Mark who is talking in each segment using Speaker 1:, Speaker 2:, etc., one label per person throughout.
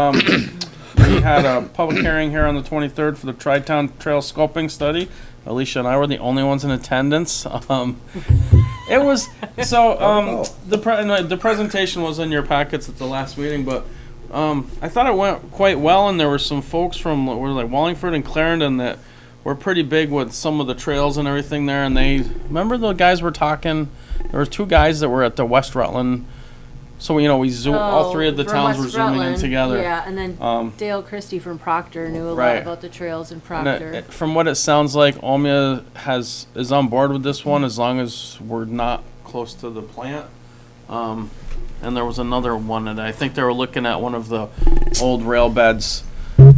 Speaker 1: Um, We had a public hearing here on the 23rd for the Tri-Town Trail Sculpting Study. Alicia and I were the only ones in attendance. Um, It was, so, um, the, pre- no, the presentation was in your packets at the last meeting, but um, I thought it went quite well, and there were some folks from, were like Wallingford and Clarendon that were pretty big with some of the trails and everything there, and they, remember the guys were talking? There were two guys that were at the West Rutland, so, you know, we zoom, all
Speaker 2: Oh,
Speaker 1: three of the
Speaker 2: from
Speaker 1: towns
Speaker 2: West
Speaker 1: were zooming in
Speaker 2: Rutland.
Speaker 1: together.
Speaker 2: Yeah, and then
Speaker 1: Um,
Speaker 2: Dale Christie from Proctor knew a lot
Speaker 1: Right.
Speaker 2: about the trails in
Speaker 1: And it-
Speaker 2: Proctor.
Speaker 1: it- From what it sounds like, Omia has, is on board with this one as long as we're not close to the plant. Um, and there was another one, and I think they were looking at one of the old rail beds,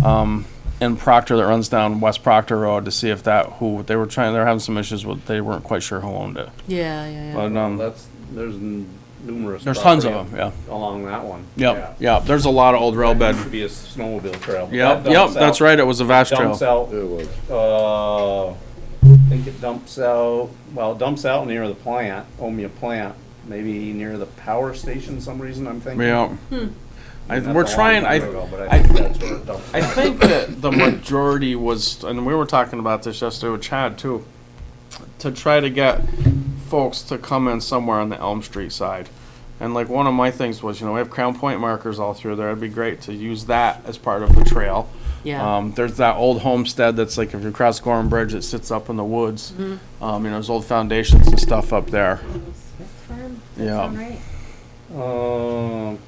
Speaker 1: um, in Proctor that runs down West Proctor Road to see if that, who, they were trying, they were having some issues with, they weren't quite sure who owned it.
Speaker 2: Yeah, yeah, yeah.
Speaker 1: But, um,
Speaker 3: That's, there's n- numerous.
Speaker 1: there's tons of
Speaker 3: property
Speaker 1: them, yeah.
Speaker 3: Along that one.
Speaker 1: Yep, yep, there's a lot of old rail
Speaker 3: That
Speaker 1: bed.
Speaker 3: used to be a snowmobile trail.
Speaker 1: Yep,
Speaker 3: That
Speaker 1: yep,
Speaker 3: dumps
Speaker 1: that's
Speaker 3: out-
Speaker 1: right, it was a vast trail.
Speaker 3: Dumps out, uh, I think it dumps out, well, it dumps out near the plant, Omea plant, maybe near the power station, some reason I'm thinking.
Speaker 1: Yeah. I,
Speaker 3: That's
Speaker 1: we're
Speaker 3: a long
Speaker 1: trying,
Speaker 3: time
Speaker 1: I,
Speaker 3: ago, But
Speaker 1: I-
Speaker 3: I think that's where it dumps
Speaker 1: I
Speaker 3: out.
Speaker 1: think that the majority was, and we were talking about this yesterday with Chad too, to try to get folks to come in somewhere on the Elm Street side. And like one of my things was, you know, we have Crown Point markers all through there. It'd be great to use that as part of the trail.
Speaker 2: Yeah.
Speaker 1: Um, there's that old homestead that's like if you cross Gorham Bridge, it sits up in the woods. Um, you know, there's old foundations and stuff up there. Yeah.
Speaker 3: Um,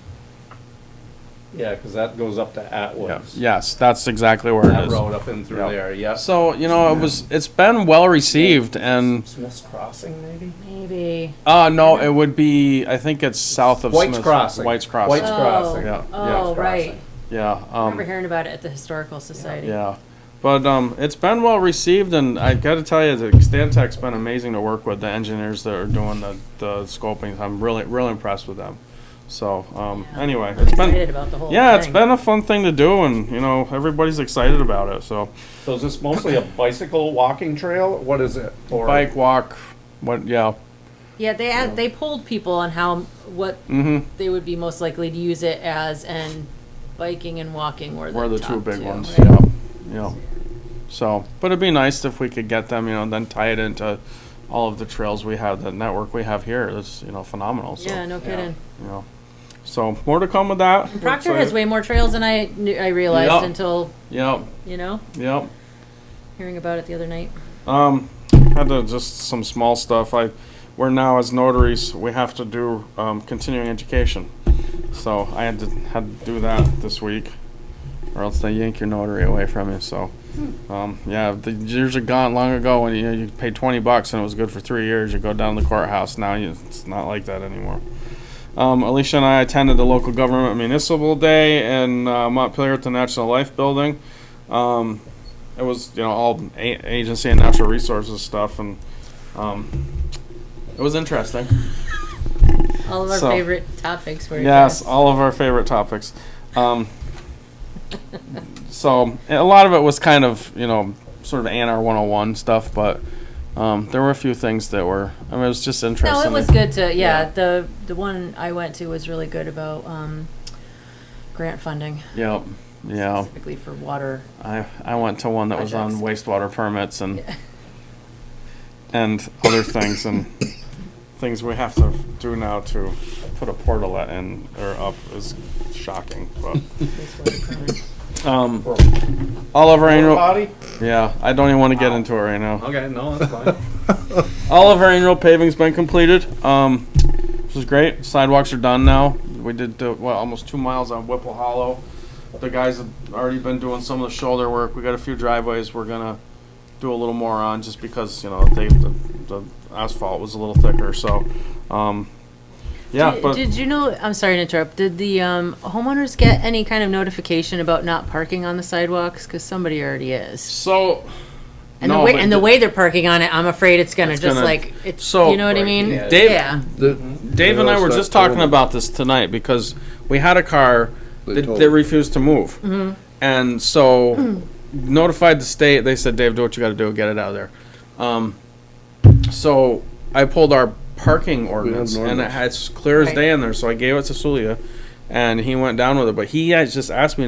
Speaker 3: yeah, cause that goes up to
Speaker 1: Yeah.
Speaker 3: Atwoods.
Speaker 1: Yes, that's exactly where it
Speaker 3: That
Speaker 1: is.
Speaker 3: road up in through
Speaker 1: Yep.
Speaker 3: there, yep.
Speaker 1: So you know, it was it's been well received and.
Speaker 3: Smith's Crossing, maybe?
Speaker 2: Maybe.
Speaker 1: Uh, no, it would be, I think it's south of
Speaker 3: White's
Speaker 1: Smith-
Speaker 3: Crossing.
Speaker 1: White's Crossing.
Speaker 3: White's- It's
Speaker 2: Oh,
Speaker 3: crossing.
Speaker 1: Yeah, yeah,
Speaker 2: oh,
Speaker 3: it's
Speaker 2: right.
Speaker 3: crossing.
Speaker 1: Yeah,
Speaker 2: I remember
Speaker 1: um,
Speaker 2: hearing about it at the Historical Society.
Speaker 1: yeah. But, um, it's been well received and I gotta tell you, that Stantec's been amazing to work with, the engineers that are doing the, the sculpting. I'm really, really impressed with them. So, um, anyway, it's
Speaker 2: Excited
Speaker 1: been,
Speaker 2: about the whole thing.
Speaker 1: yeah, it's been a fun thing to do and, you know, everybody's excited about it, so.
Speaker 3: So is this mostly a bicycle walking trail? What is it? Or
Speaker 1: Bike, walk, what, yeah,
Speaker 2: Yeah, they had, they polled people on how, what
Speaker 1: mm-hmm,
Speaker 2: they would be most likely to use it as, and biking and walking were the
Speaker 1: we're the
Speaker 2: top
Speaker 1: two big ones,
Speaker 2: right?
Speaker 1: yeah, yeah. So, but it'd be nice if we could get them, you know, then tie it into all of the trails we have, the network we have here. That's, you know, phenomenal. So,
Speaker 2: Yeah, no kidding.
Speaker 1: you know, so more to come with that.
Speaker 2: Proctor has way more trails than I knew, I realized
Speaker 1: Yeah.
Speaker 2: until,
Speaker 1: Yep,
Speaker 2: you know,
Speaker 1: yep.
Speaker 2: hearing about it the other night.
Speaker 1: Um, had to just some small stuff. I, we're now as notaries, we have to do um, continuing education. So I had to had to do that this week, or else they yank your notary away from you. So, um, yeah, the years are gone long ago when you know, you paid twenty bucks and it was good for three years. You go down to the courthouse now. You, it's not like that anymore. Um, Alicia and I attended the local government municipal day in uh, Montpelier at the National Life Building. Um, it was you know all a- agency and natural resources stuff and um, it was interesting
Speaker 2: All of our
Speaker 1: So-
Speaker 2: favorite topics were.
Speaker 1: yes
Speaker 2: addressed.
Speaker 1: all of our favorite topics um, so a lot of it was kind of you know sort of anr 101 stuff but um, there were a few things that were i mean it was just interesting
Speaker 2: No, it was good to,
Speaker 1: Yeah.
Speaker 2: yeah, the, the one I went to was really good about, um, grant funding
Speaker 1: yep yeah
Speaker 2: specifically for water.
Speaker 1: I, I went to one that was on wastewater permits and and other things and things we have to do now to put a portalet in or up is shocking. But um, all of our
Speaker 3: Porta
Speaker 1: annual
Speaker 3: potty?
Speaker 1: yeah, I don't even want to get into it right now.
Speaker 3: Okay, no, that's fine.
Speaker 1: All of our annual paving's been completed. Um, this is great. Sidewalks are done now. We did uh, well, almost two miles on Whipple Hollow. The guys have already been doing some of the shoulder work. We got a few driveways we're gonna do a little more on just because you know they, the, the asphalt was a little thicker. So, um, yeah,
Speaker 2: Did-
Speaker 1: but
Speaker 2: Did you know, I'm sorry to interrupt, did the, um, homeowners get any kind of notification about not parking on the sidewalks? Cause somebody already is.
Speaker 1: so
Speaker 2: And the
Speaker 1: No,
Speaker 2: way,
Speaker 1: but
Speaker 2: and the
Speaker 1: the-
Speaker 2: way they're parking on it, I'm afraid it's gonna
Speaker 1: It's
Speaker 2: just
Speaker 1: gonna-
Speaker 2: like, it's,
Speaker 1: So-
Speaker 2: you know what I mean?
Speaker 3: yeah.
Speaker 1: Dave-
Speaker 2: Yeah.
Speaker 4: The-
Speaker 3: Mm-hmm.
Speaker 1: Dave and I
Speaker 4: they'll
Speaker 1: were
Speaker 4: start
Speaker 1: just talking
Speaker 4: towing.
Speaker 1: about this tonight because we had a car
Speaker 4: They
Speaker 1: that,
Speaker 4: towed
Speaker 1: that
Speaker 4: it.
Speaker 1: refused to move. And so notified the state, they said, Dave, do what you gotta do, get it out of there. Um, so I pulled our parking ordinance and it
Speaker 4: ordinance.
Speaker 1: had it's clear as
Speaker 2: Right.
Speaker 1: day in there, so I gave it to Sulia and he went down with it, but he has just asked me